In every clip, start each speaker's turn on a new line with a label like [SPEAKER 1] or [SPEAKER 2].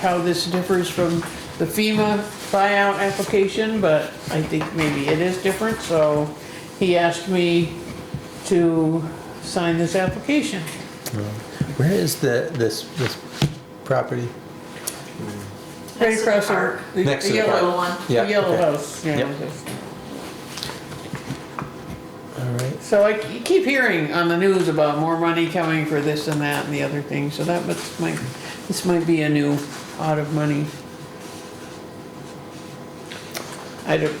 [SPEAKER 1] how this differs from the FEMA buyout application, but I think maybe it is different, so he asked me to sign this application.
[SPEAKER 2] Where is the, this, this property?
[SPEAKER 1] Right
[SPEAKER 3] Next to the
[SPEAKER 1] across the,
[SPEAKER 3] park.
[SPEAKER 1] the
[SPEAKER 2] Next to the
[SPEAKER 1] yellow-
[SPEAKER 3] Little one.
[SPEAKER 2] Yeah,
[SPEAKER 1] the yellow
[SPEAKER 2] okay.
[SPEAKER 1] house, yeah.
[SPEAKER 2] Yep. All right.
[SPEAKER 1] So I ke- keep hearing on the news about more money coming for this and that and the other thing, so that must, might, this might be a new pot of money. I don't,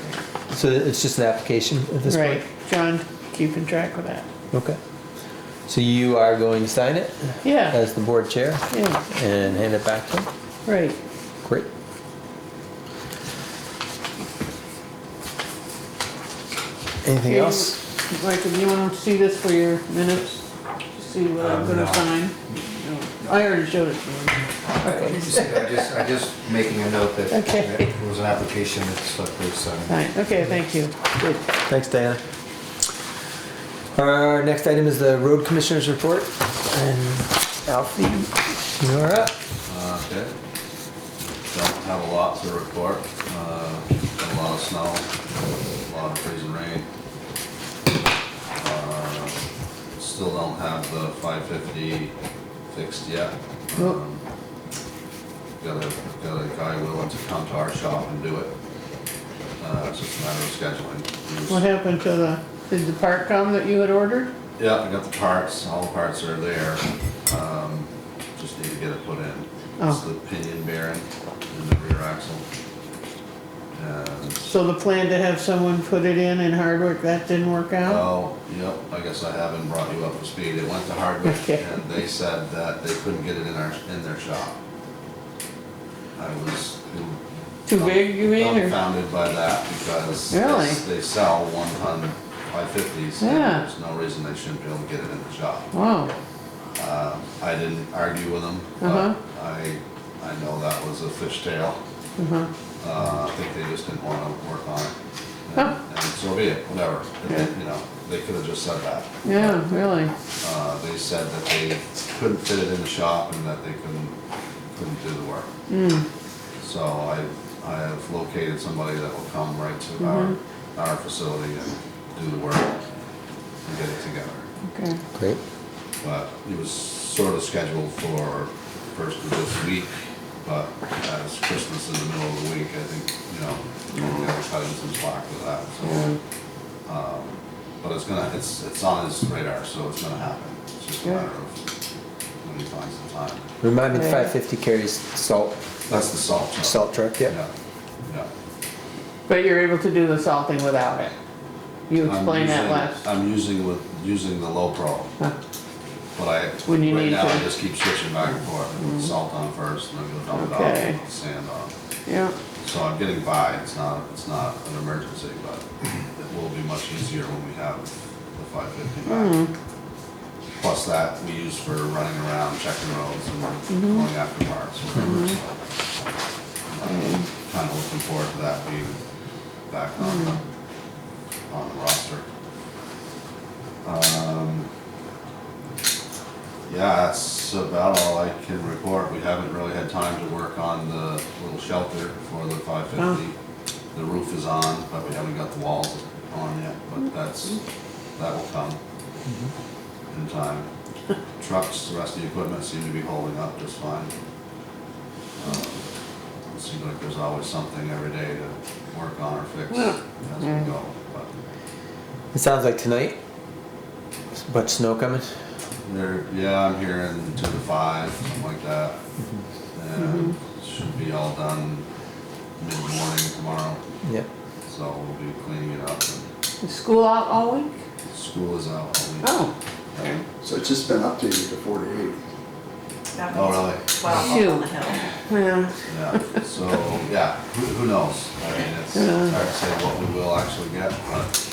[SPEAKER 2] So it's just an application at this point?
[SPEAKER 1] right, John, keeping track of that.
[SPEAKER 2] Okay. So you are going to sign it
[SPEAKER 1] Yeah,
[SPEAKER 2] as the board chair
[SPEAKER 1] yeah,
[SPEAKER 2] and hand it back to him?
[SPEAKER 1] right.
[SPEAKER 2] Great. Anything else?
[SPEAKER 1] Like, if you wanna see this for your minutes, to see what I'm
[SPEAKER 4] Um,
[SPEAKER 1] gonna
[SPEAKER 4] no.
[SPEAKER 1] sign? No, I already showed it to you.
[SPEAKER 4] I just, I just making a note that
[SPEAKER 1] Okay.
[SPEAKER 4] that it was an application that slipped through some.
[SPEAKER 1] Fine, okay, thank you, good.
[SPEAKER 2] Thanks, Diana. Our next item is the road commissioners report. And Alfie, you're up.
[SPEAKER 5] Uh, Okay. Don't have a lot to report. Uh, A lot of snow, a lot of freezing rain. Uh, Still don't have the 550 fixed yet.
[SPEAKER 1] Nope.
[SPEAKER 5] Um, Got a, got a guy willing to come to our shop and do it. Uh, It's just a matter of scheduling. He was-
[SPEAKER 1] What happened to the, did the part come that you had ordered?
[SPEAKER 5] Yeah, I got the parts, all the parts are there, um, just need to get it put in. It's
[SPEAKER 1] Oh.
[SPEAKER 5] the pinion bearing in the rear axle. And,
[SPEAKER 1] So the plan to have someone put it in in Hardwick, that didn't work out?
[SPEAKER 5] oh, yep, I guess I haven't brought you up to speed, it went to Hardwick,
[SPEAKER 1] Okay.
[SPEAKER 5] and they said that they couldn't get it in our, in their shop. I was.
[SPEAKER 1] Too big, you mean, or-
[SPEAKER 5] Confounded by that, because they
[SPEAKER 1] Really?
[SPEAKER 5] s- they sell one ton five fifties, and
[SPEAKER 1] Yeah.
[SPEAKER 5] there's no reason they shouldn't be able to get it in the shop.
[SPEAKER 1] Wow,
[SPEAKER 5] Um, I didn't argue with them,
[SPEAKER 1] Uh-huh.
[SPEAKER 5] but I, I know that was a fishtail.
[SPEAKER 1] uh-huh,
[SPEAKER 5] Uh, I think they just didn't want to work on it.
[SPEAKER 1] Huh.
[SPEAKER 5] And- And so be it, whatever. It- it-
[SPEAKER 1] Yeah.
[SPEAKER 5] You know, they could have just said that.
[SPEAKER 1] yeah, really,
[SPEAKER 5] Uh, They said that they couldn't fit it in the shop and that they couldn't, couldn't do the work.
[SPEAKER 1] Hmm.
[SPEAKER 5] So I, I have located somebody that will come right to our,
[SPEAKER 1] Mm-hmm.
[SPEAKER 5] our facility and do the work and get it together
[SPEAKER 1] okay,
[SPEAKER 2] Great.
[SPEAKER 5] but it was sort of scheduled for first of this week, but as Christmas in the middle of the week, I think, you know, we gotta cut in some slack with that, so. um, But it's gonna, it's, it's on his radar, so it's gonna happen, it's just a
[SPEAKER 1] Yeah.
[SPEAKER 5] matter of when he finds the time.
[SPEAKER 2] Remind me, the
[SPEAKER 1] Yeah.
[SPEAKER 2] 550 carries salt,
[SPEAKER 5] That's the salt truck.
[SPEAKER 2] salt truck, yeah?
[SPEAKER 5] Yeah, yeah.
[SPEAKER 1] but you're able to do the salting without it? You
[SPEAKER 5] I'm
[SPEAKER 1] explained that
[SPEAKER 5] using-
[SPEAKER 1] last,
[SPEAKER 5] I'm using with, using the low pro,
[SPEAKER 1] Huh.
[SPEAKER 5] but I,
[SPEAKER 1] When you
[SPEAKER 5] right
[SPEAKER 1] need
[SPEAKER 5] now, I
[SPEAKER 1] to. Mm-hmm.
[SPEAKER 5] just keep switching back and forth, I put salt on first, and then go dump it off,
[SPEAKER 1] Okay.
[SPEAKER 5] and put sand on.
[SPEAKER 1] yeah,
[SPEAKER 5] So I'm getting by, it's not, it's not an emergency, but it will be much easier when we have the five fifty back. Plus that, we use for running around, checking roads and going after parts. Kind of looking forward to that being back on the, on the roster. Um, Yeah, that's about all I can report. We haven't really had time to work on the little shelter for the five fifty. The roof is on, but we haven't got the walls on yet, but that's, that will come in time. Trucks, the rest of the equipment seem to be holding up just fine. Um, It seems like there's always something every day to work on or fix
[SPEAKER 1] Yeah. Mm.
[SPEAKER 5] as we go, but
[SPEAKER 2] It sounds like tonight, there's a bunch of snow coming.
[SPEAKER 5] there, yeah, I'm hearing two to five, something like that. And
[SPEAKER 1] Mm-hmm.
[SPEAKER 5] should be all done mid-morning tomorrow,
[SPEAKER 2] Yep.
[SPEAKER 5] so we'll be cleaning it up and
[SPEAKER 1] is school out all week?
[SPEAKER 5] school is out all week.
[SPEAKER 1] Oh, okay,
[SPEAKER 6] So it's just been updated to forty-eight.
[SPEAKER 3] That
[SPEAKER 5] Oh,
[SPEAKER 3] one's
[SPEAKER 5] really?
[SPEAKER 3] Twelve up on the hill.
[SPEAKER 1] yeah,
[SPEAKER 5] Yeah, so, yeah, who, who knows? I mean, it's it's hard to say what we will actually get, but,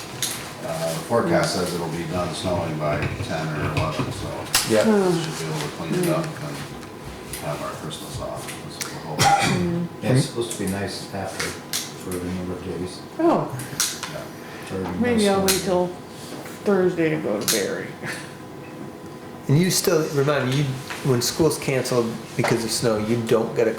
[SPEAKER 5] uh, the forecast says it'll be done snowing by ten or eleven, so.
[SPEAKER 2] Yeah.
[SPEAKER 5] we Should be able to clean it up and have our Christmas off, that's what we're hoping.
[SPEAKER 4] Yeah, It's supposed to be nice after, for a number of days.
[SPEAKER 1] oh,
[SPEAKER 5] Yeah.
[SPEAKER 4] for no
[SPEAKER 1] maybe I'll
[SPEAKER 4] snow.
[SPEAKER 1] wait till Thursday to go to Barry.
[SPEAKER 2] And you still, remind me, you, when school's canceled because of snow, you don't get a